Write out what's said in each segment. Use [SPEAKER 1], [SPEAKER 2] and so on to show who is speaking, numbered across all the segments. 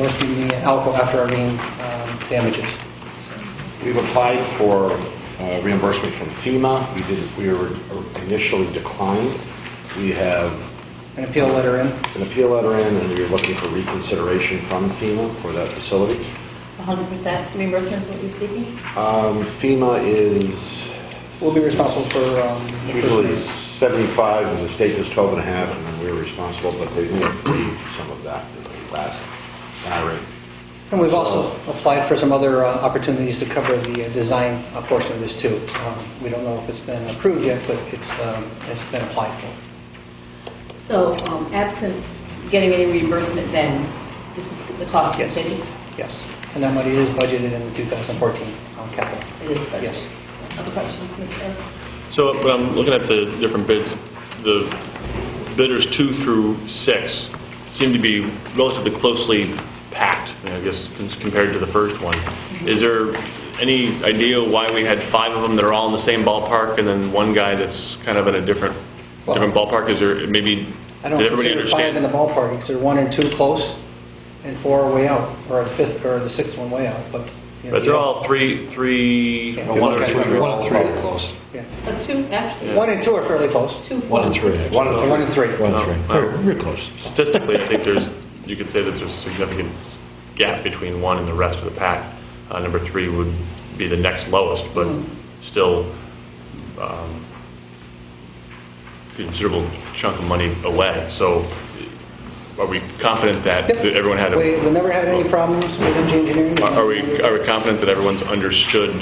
[SPEAKER 1] with the Alco after our main um, damages.
[SPEAKER 2] We've applied for uh, reimbursement from FEMA. We did, we were initially declined. We have
[SPEAKER 1] An appeal letter in.
[SPEAKER 2] an appeal letter in, and we're looking for reconsideration from FEMA for that facility.
[SPEAKER 3] 100% reimbursement is what you're seeking?
[SPEAKER 2] Um, FEMA is
[SPEAKER 1] We'll be responsible for um, the
[SPEAKER 2] usually
[SPEAKER 1] first
[SPEAKER 2] 75, and the state does 12 and a half, and then we're responsible, but they did pay some of that in the last IRA.
[SPEAKER 1] name. And we've also applied for some other uh, opportunities to cover the uh, design uh, portion of this too. Um, We don't know if it's been approved yet, but it's, um, it's been applied for.
[SPEAKER 3] So um, absent getting any reimbursement, then this is the cost of the city?
[SPEAKER 1] Yes. And that money is budgeted in 2014 on capital.
[SPEAKER 3] It is budgeted?
[SPEAKER 1] Yes.
[SPEAKER 3] Other questions, Mr. Evans?
[SPEAKER 4] So, but I'm looking at the different bids, the bidders two through six seem to be relatively closely packed, I guess, compared to the first one. Is there any idea why we had five of them that are all in the same ballpark, and then one guy that's kind of in a different, different ballpark? Is there, maybe,
[SPEAKER 1] I
[SPEAKER 4] did
[SPEAKER 1] don't
[SPEAKER 4] everybody
[SPEAKER 1] consider five in the
[SPEAKER 4] understand?
[SPEAKER 1] ballpark, because they're one and two close, and four are way out, or the fifth, or the sixth one way out, but. you know,
[SPEAKER 4] But they're all three, three,
[SPEAKER 1] Yeah.
[SPEAKER 4] one or
[SPEAKER 1] Okay.
[SPEAKER 4] three.
[SPEAKER 1] One
[SPEAKER 2] and three are close.
[SPEAKER 1] yeah.
[SPEAKER 3] But Uh, two, actually,
[SPEAKER 1] One and two are fairly close.
[SPEAKER 3] two, four.
[SPEAKER 5] One and three.
[SPEAKER 2] One of
[SPEAKER 1] One and
[SPEAKER 2] the,
[SPEAKER 1] three.
[SPEAKER 5] One and three.
[SPEAKER 4] Oh,
[SPEAKER 5] We're- We're close.
[SPEAKER 4] statistically, I think there's, you could say that there's a significant gap between one and the rest of the pack. Uh, Number three would be the next lowest, but still um, considerable chunk of money away. So are we confident that
[SPEAKER 1] Yep.
[SPEAKER 4] that everyone had? a-
[SPEAKER 1] We, we never had any problems with engine engineering.
[SPEAKER 4] Are are we, are we confident that everyone's understood?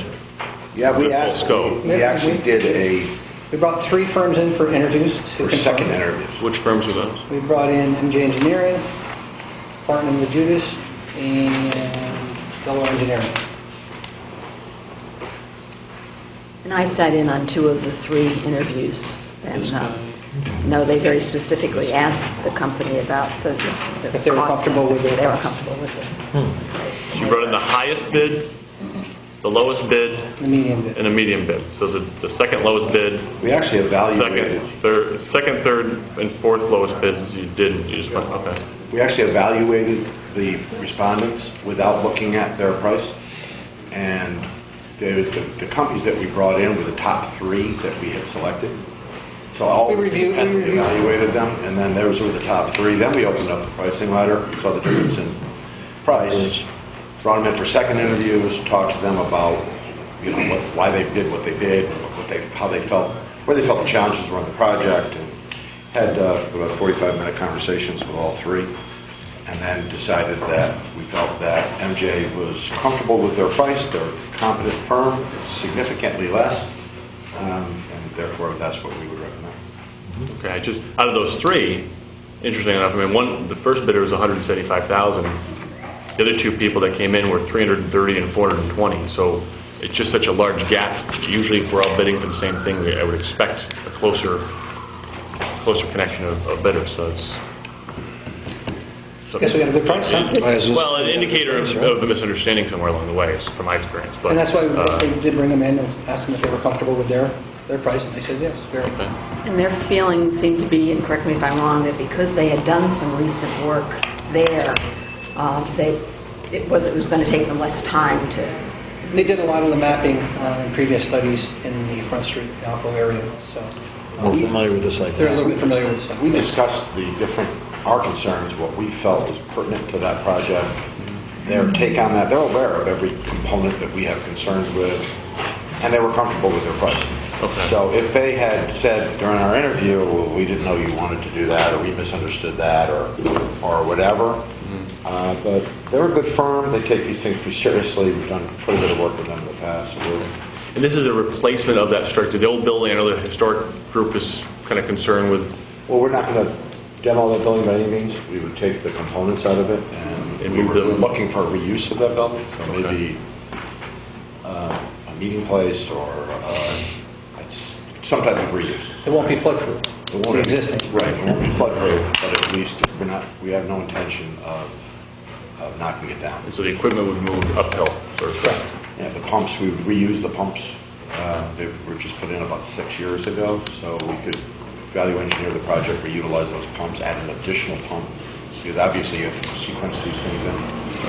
[SPEAKER 2] yeah, we
[SPEAKER 4] The full
[SPEAKER 2] asked,
[SPEAKER 4] scope.
[SPEAKER 2] we actually did a,
[SPEAKER 1] We brought three firms in for interviews. to
[SPEAKER 2] for
[SPEAKER 1] confirm.
[SPEAKER 2] second interviews.
[SPEAKER 4] Which firms were those?
[SPEAKER 1] We brought in MJ Engineering, Barton and Judas, and Delaware Engineering.
[SPEAKER 6] And I sat in on two of the three interviews, and, uh, no, they very specifically asked the company about the the
[SPEAKER 1] If they were
[SPEAKER 6] cost.
[SPEAKER 1] comfortable with it. Hmm.
[SPEAKER 6] They were comfortable with it.
[SPEAKER 4] So you brought in the highest bid, the lowest bid,
[SPEAKER 1] The medium bid.
[SPEAKER 4] and the medium bid. So the, the second lowest bid
[SPEAKER 2] We actually
[SPEAKER 4] Second,
[SPEAKER 2] evaluated,
[SPEAKER 4] third, second, third, and fourth lowest bids you did, you just went, okay.
[SPEAKER 2] we actually evaluated the respondents without looking at their price. And there was the, the companies that we brought in were the top three that we had selected. So all
[SPEAKER 1] We
[SPEAKER 2] of us
[SPEAKER 1] reviewed- we
[SPEAKER 2] independently
[SPEAKER 1] reviewed.
[SPEAKER 2] evaluated them, and then those were the top three. Then we opened up the pricing ladder, saw the difference in price, brought them in for second interviews, talked to them about, you know, what, why they did what they did, what they, how they felt, where they felt the challenges were on the project, and had uh, about 45-minute conversations with all three, and then decided that we felt that MJ was comfortable with their price, they're a competent firm, it's significantly less, um, and therefore, that's what we would recommend.
[SPEAKER 4] Okay, I just, out of those three, interesting enough, I mean, one, the first bidder was 175,000. The other two people that came in were 330 and 420, so it's just such a large gap. Usually if we're all bidding for the same thing, I would expect a closer, closer connection of of bidders, so it's. so
[SPEAKER 1] Guess we got a good price, huh?
[SPEAKER 4] it's- Well, an indicator of of the misunderstanding somewhere along the way, is from my experience, but.
[SPEAKER 1] And that's why we-
[SPEAKER 4] uh,
[SPEAKER 1] we did bring them in and ask them if they were comfortable with their, their price, and they said yes, very.
[SPEAKER 6] And their feeling seemed to be, and correct me if I'm wrong, that because they had done some recent work there, uh, they, it was, it was going to take them less time to...
[SPEAKER 1] They did a lot of the mapping uh, in previous studies in the Front Street, Alco area, so
[SPEAKER 5] We're familiar with this like
[SPEAKER 1] they're a
[SPEAKER 5] that.
[SPEAKER 1] little bit familiar with stuff.
[SPEAKER 2] We discussed the different, our concerns, what we felt was pertinent to that project, their take on that, they're aware of every component that we have concerns with, and they were comfortable with their price.
[SPEAKER 4] Okay.
[SPEAKER 2] So if they had said during our interview, well, we didn't know you wanted to do that, or we misunderstood that, or, or whatever, uh, but they're a good firm, they take these things pretty seriously, we've done quite a bit of work with them in the past, so we're-
[SPEAKER 4] And this is a replacement of that structure. The old building, I know the historic group is kind of concerned with,
[SPEAKER 2] Well, we're not going to demo that building by any means. We would take the components out of it, and
[SPEAKER 4] And
[SPEAKER 2] we
[SPEAKER 4] move
[SPEAKER 2] were
[SPEAKER 4] them.
[SPEAKER 2] we're looking for reuse of that building, so
[SPEAKER 4] Okay.
[SPEAKER 2] maybe uh, a meeting place or uh, it's some type of reuse.
[SPEAKER 1] It won't be floodproof,
[SPEAKER 2] It
[SPEAKER 1] the
[SPEAKER 2] won't be-
[SPEAKER 1] existing.
[SPEAKER 2] Right, it won't be floodproof, but at least we're not, we have no intention of of knocking it down.
[SPEAKER 4] and so the equipment would move uphill, sort of.
[SPEAKER 1] Correct.
[SPEAKER 2] Yeah, the pumps, we would reuse the pumps. Uh, They were just put in about six years ago, so we could value engineer the project, reutilize those pumps, add an additional pump, because obviously you have to sequence these things in